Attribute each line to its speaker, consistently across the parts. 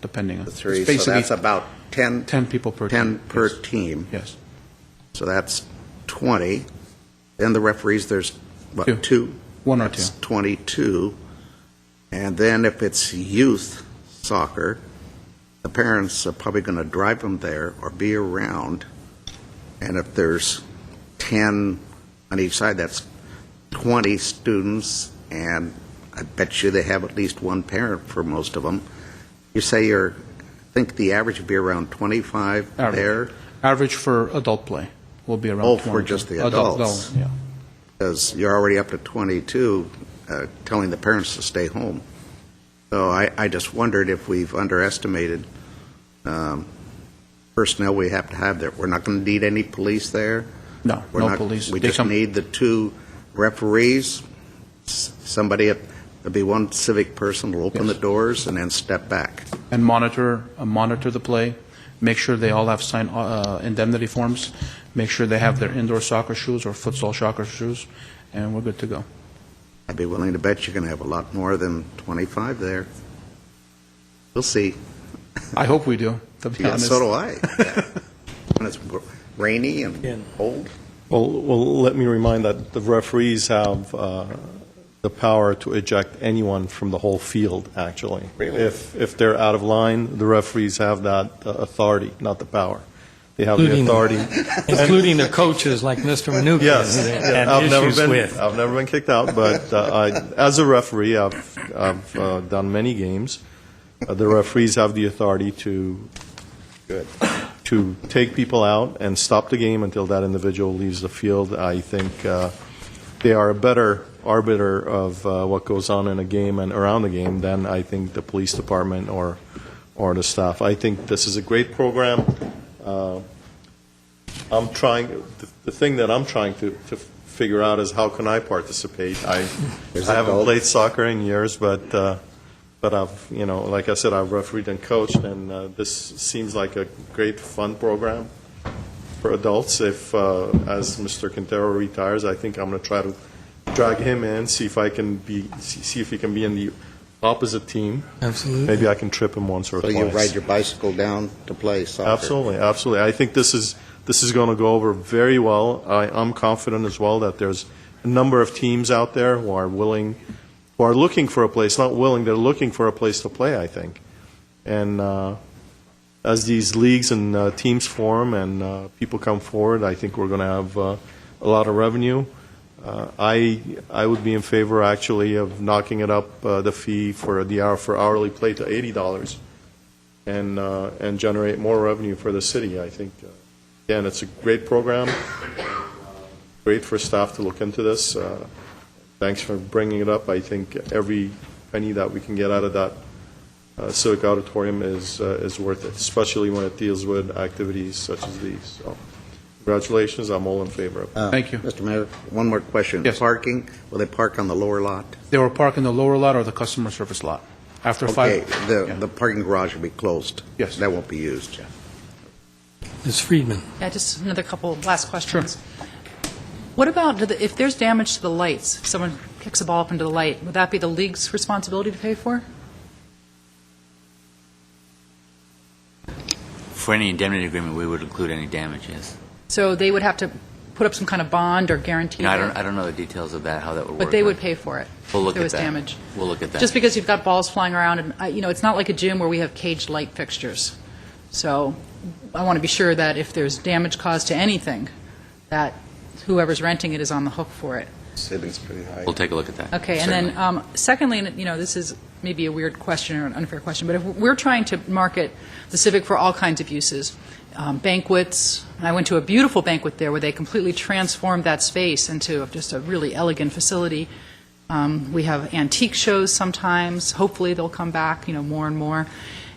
Speaker 1: depending on.
Speaker 2: the three,
Speaker 1: it's
Speaker 2: so that's
Speaker 1: basically
Speaker 2: about 10.
Speaker 1: 10 people per team.
Speaker 2: 10 per
Speaker 1: Yes.
Speaker 2: team.
Speaker 1: Yes,
Speaker 2: So that's 20. And the referees, there's,
Speaker 1: Two.
Speaker 2: what, two?
Speaker 1: one or two.
Speaker 2: That's 22. And then if it's youth soccer, the parents are probably going to drive them there or be around. And if there's 10 on each side, that's 20 students, and I bet you they have at least one parent for most of them. You say you're, I think the average would be around 25
Speaker 1: Average.
Speaker 2: there,
Speaker 1: Average for adult play will be around
Speaker 2: Oh,
Speaker 1: 20.
Speaker 2: for just the
Speaker 1: Adult,
Speaker 2: adults.
Speaker 1: no, yeah.
Speaker 2: because you're already up to 22, uh, telling the parents to stay home. So I, I just wondered if we've underestimated um, personnel we have to have there. We're not going to need any police there.
Speaker 1: No,
Speaker 2: We're
Speaker 1: no
Speaker 2: not-
Speaker 1: police.
Speaker 2: We
Speaker 1: They
Speaker 2: just
Speaker 1: come-
Speaker 2: need the two referees, s- somebody, at- there'll be one civic person will open the
Speaker 1: Yes.
Speaker 2: doors and then step back.
Speaker 1: and monitor, uh, monitor the play, make sure they all have signed uh, indemnity forms, make sure they have their indoor soccer shoes or futsal soccer shoes, and we're good to go.
Speaker 2: I'd be willing to bet you're going to have a lot more than 25 there. We'll see.
Speaker 1: I hope we do, to be
Speaker 2: Yeah,
Speaker 1: honest.
Speaker 2: so do I. Yeah. When it's rainy and cold.
Speaker 3: Well, well, let me remind that the referees have uh, the power to eject anyone from the whole field, actually.
Speaker 2: Really?
Speaker 3: If, if they're out of line, the referees have that uh, authority, not the power. They have the
Speaker 4: Including-
Speaker 3: authority.
Speaker 4: Including the coaches like Mr. Menuchyan.
Speaker 3: Yes,
Speaker 4: who they
Speaker 3: yeah,
Speaker 4: had
Speaker 3: I've never
Speaker 4: issues
Speaker 3: been,
Speaker 4: with.
Speaker 3: I've never been kicked out, but uh, I, as a referee, I've, I've uh, done many games. Uh, The referees have the authority to, to take people out and stop the game until that individual leaves the field. I think uh, they are a better arbiter of uh, what goes on in a game and around the game than I think the police department or, or the staff. I think this is a great program. Uh, I'm trying, the- the thing that I'm trying to, to figure out is how can I participate? I,
Speaker 2: There's
Speaker 3: I
Speaker 2: that
Speaker 3: haven't
Speaker 2: goal.
Speaker 3: played soccer in years, but, uh, but I've, you know, like I said, I've refereed and coached, and uh, this seems like a great fun program for adults. If, uh, as Mr. Quintero retires, I think I'm going to try to drag him in, see if I can be, see see if he can be in the opposite team.
Speaker 4: Absolutely.
Speaker 3: Maybe I can trip him once or
Speaker 2: So
Speaker 3: twice.
Speaker 2: you ride your bicycle down to play soccer.
Speaker 3: Absolutely, absolutely. I think this is, this is going to go over very well. I, I'm confident as well that there's a number of teams out there who are willing, who are looking for a place, not willing, they're looking for a place to play, I think. And uh, as these leagues and uh, teams form and uh, people come forward, I think we're going to have uh, a lot of revenue. Uh, I, I would be in favor, actually, of knocking it up, uh, the fee for the hour, for hourly play to $80 and, uh, and generate more revenue for the city. I think, uh, again, it's a great program, great for staff to look into this. Uh, Thanks for bringing it up. I think every penny that we can get out of that uh, civic auditorium is, uh, is worth it, especially when it deals with activities such as these. So congratulations, I'm all in favor of it.
Speaker 2: Uh,
Speaker 1: Thank you.
Speaker 2: Mr. Mayor, one more question.
Speaker 1: Yes.
Speaker 2: Parking, will they park on the lower lot?
Speaker 1: They were parked in the lower lot or the customer service lot. After
Speaker 2: Okay,
Speaker 1: five.
Speaker 2: the,
Speaker 1: yeah.
Speaker 2: the parking garage will be closed.
Speaker 1: Yes.
Speaker 2: That won't be used.
Speaker 4: Ms. Friedman.
Speaker 5: Yeah, just another couple last questions. What about, do the- if there's damage to the lights, if someone kicks a ball up into the light, would that be the league's responsibility to pay for?
Speaker 6: For any indemnity agreement, we would include any damages.
Speaker 5: So they would have to put up some kind of bond or guarantee?
Speaker 6: You know, I don't,
Speaker 5: that-
Speaker 6: I don't know the details of that, how that would work.
Speaker 5: But they would pay for it?
Speaker 6: We'll
Speaker 5: if
Speaker 6: look at that.
Speaker 5: There was damage?
Speaker 6: We'll look at that.
Speaker 5: Just because you've got balls flying around, and, uh, you know, it's not like a gym where we have caged light fixtures. So I want to be sure that if there's damage caused to anything, that whoever's renting it is on the hook for it.
Speaker 2: Ceiling's pretty high.
Speaker 6: We'll take a look at that.
Speaker 5: Okay, and then,
Speaker 6: certainly.
Speaker 5: um, secondly, and, you know, this is maybe a weird question or an unfair question, but if we're trying to market the Civic for all kinds of uses, um, banquets, I went to a beautiful banquet there where they completely transformed that space into just a really elegant facility. Um, We have antique shows sometimes, hopefully they'll come back, you know, more and more.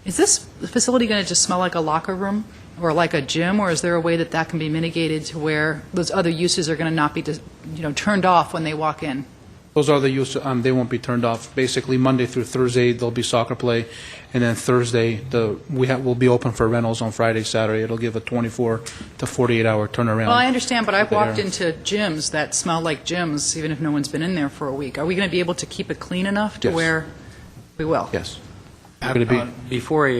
Speaker 5: Is this facility going to just smell like a locker room or like a gym, or is there a way that that can be mitigated to where those other uses are going to not be, dis- you know, turned off when they walk in?
Speaker 1: Those are the use, um, they won't be turned off. Basically, Monday through Thursday, there'll be soccer play, and then Thursday, the, we have, will be open for rentals on Friday, Saturday. It'll give a 24 to 48-hour turnaround.
Speaker 5: Well, I understand, but I've
Speaker 1: They
Speaker 5: walked
Speaker 1: are.
Speaker 5: into gyms that smell like gyms, even if no one's been in there for a week. Are we going to be able to keep it clean enough to
Speaker 1: Yes.
Speaker 5: where we will? Uh,
Speaker 1: Yes. We're gonna be-
Speaker 7: Before I